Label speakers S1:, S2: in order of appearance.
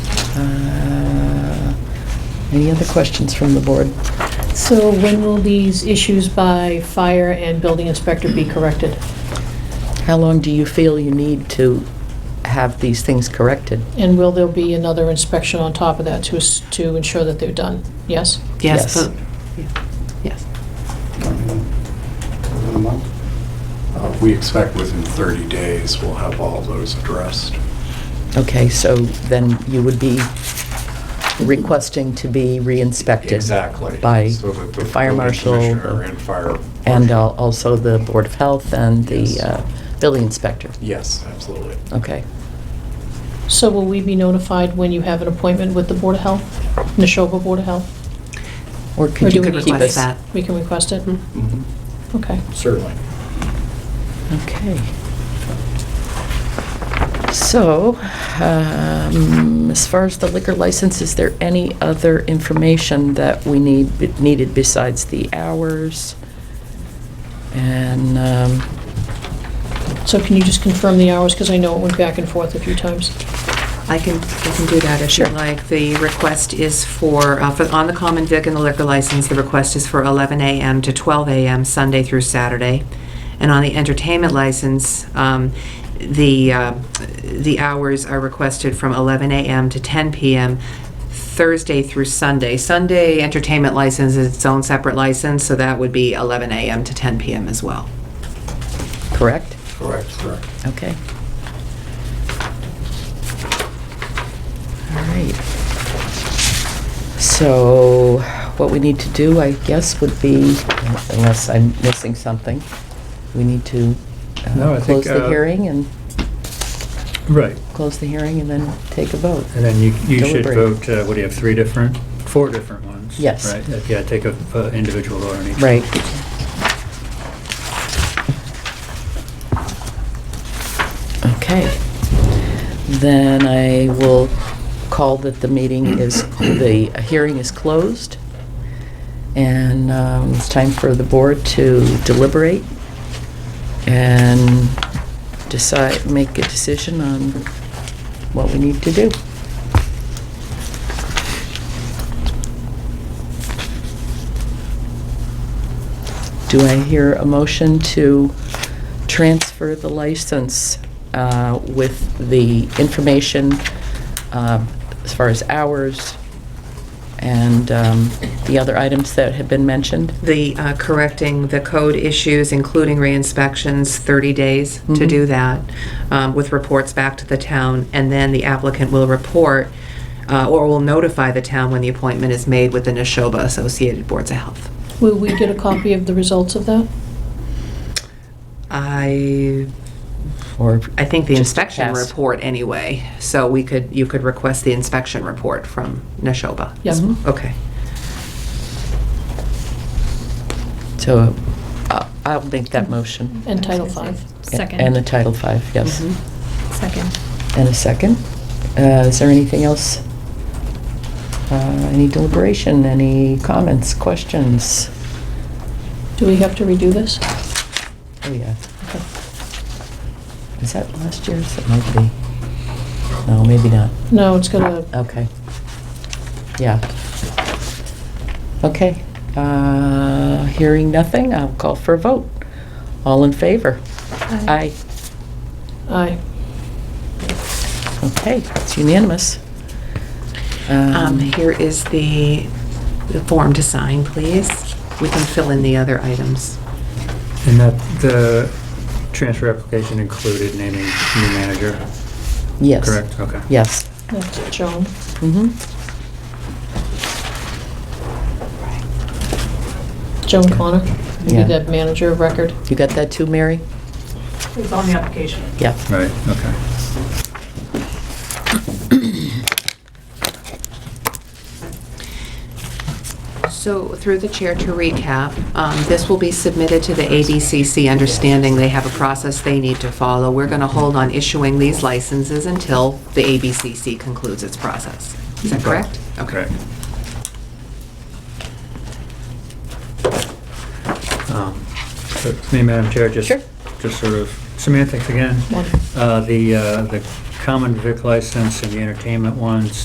S1: Uh, Any other questions from the board?
S2: So when will these issues by fire and building inspector be corrected?
S1: How long do you feel you need to have these things corrected?
S2: And will there be another inspection on top of that to, s- to ensure that they're done? Yes?
S1: Yes.
S3: Yes, but, yeah, yes.
S4: Within a month?
S5: Uh, We expect within 30 days, we'll have all those addressed.
S1: Okay, so then you would be requesting to be re-inspected?
S5: Exactly.
S1: By
S5: So that
S1: the fire
S5: building
S1: marshal?
S5: commissioner And fire.
S1: And al- also the Board of Health and the
S5: Yes.
S1: uh, building inspector?
S5: Yes, absolutely.
S1: Okay.
S2: So will we be notified when you have an appointment with the Board of Health, Neshoba Board of Health?
S1: Or
S2: Or
S1: could
S2: do
S1: you
S2: we
S1: keep us?
S2: need
S3: request that.
S2: We can request it?
S3: Mhm.
S1: Mm-hmm.
S2: Okay.
S5: Mm-hmm. Certainly.
S1: Okay. So, um, as far as the liquor license, is there any other information that we need, needed besides the hours? And, um,
S2: So can you just confirm the hours, because I know it went back and forth a few times?
S3: I can, I can do that if you
S1: Sure.
S3: like. The request is for, uh, for, on the common vic and the liquor license, the request is for 11 a.m. to 12 a.m., Sunday through Saturday. And on the entertainment license, um, the, uh, the hours are requested from 11 a.m. to 10 p.m., Thursday through Sunday. Sunday entertainment license is its own separate license, so that would be 11 a.m. to 10 p.m. as well.
S1: correct?
S5: Correct, correct.
S1: Okay. All right. So what we need to do, I guess, would be, unless I'm missing something, we need to uh,
S6: No, I think,
S1: close the
S6: uh,
S1: hearing and,
S6: Right,
S1: close the hearing and then take a vote.
S6: and then you, you should
S1: Deliberate.
S6: vote, uh, what do you have, three different, four different ones?
S1: Yes.
S6: Right, yeah, take a uh, individual vote on each. one.
S1: Right. Okay. Then I will call that the meeting is, the hearing is closed, and um, it's time for the board to deliberate and decide, make a decision on what we need to do. Do I hear a motion to transfer the license uh, with the information um, as far as hours and um, the other items that have been mentioned?
S3: the, uh, correcting the code issues, including re-inspections, 30 days to
S1: Mhm.
S3: do that, um, with reports back to the town, and then the applicant will report, uh, or will notify the town when the appointment is made with the Neshoba Associated Boards of Health.
S2: Will we get a copy of the results of that?
S3: I,
S1: Or
S3: I think the
S1: just
S3: inspection
S1: cast?
S3: report anyway, so we could, you could request the inspection report from Neshoba.
S2: Yes.
S1: Mhm.
S3: Okay.
S1: So uh, I'll make that motion.
S2: And Title V?
S1: And the
S7: Second.
S1: Title V, yes.
S3: Mhm.
S7: Second.
S1: And a second. Uh, Is there anything else? Uh, Any deliberation, any comments, questions?
S2: Do we have to redo this?
S1: Oh, yeah.
S2: Okay.
S1: Is that last year's? It might be. No, maybe not.
S2: No, it's gonna,
S1: Okay. Yeah. Okay. Uh, Hearing nothing, I'll call for a vote. All in favor? Aye.
S2: aye.
S1: Okay, it's unanimous.
S3: Um,
S1: Um,
S3: here is the, the form to sign, please. We can fill in the other items.
S6: And that, the transfer application included naming new manager,
S1: Yes.
S6: correct? Okay.
S1: Yes.
S2: That's Joan.
S1: Mhm.
S2: Joan Connor,
S1: Yeah.
S2: maybe the manager of record.
S1: You got that too, Mary?
S8: It's on the application.
S1: Yeah.
S6: Right, okay.
S3: So through the chair to recap, um, this will be submitted to the ABCC, understanding they have a process they need to follow. We're going to hold on issuing these licenses until the ABCC concludes its process. Is that correct? Okay.
S6: Correct. Um, so, Me, Madam Chair, just,
S1: Sure.
S6: just sort of semantics again.
S2: Wonderful.
S6: Uh, The, uh, the common vic license and the entertainment ones,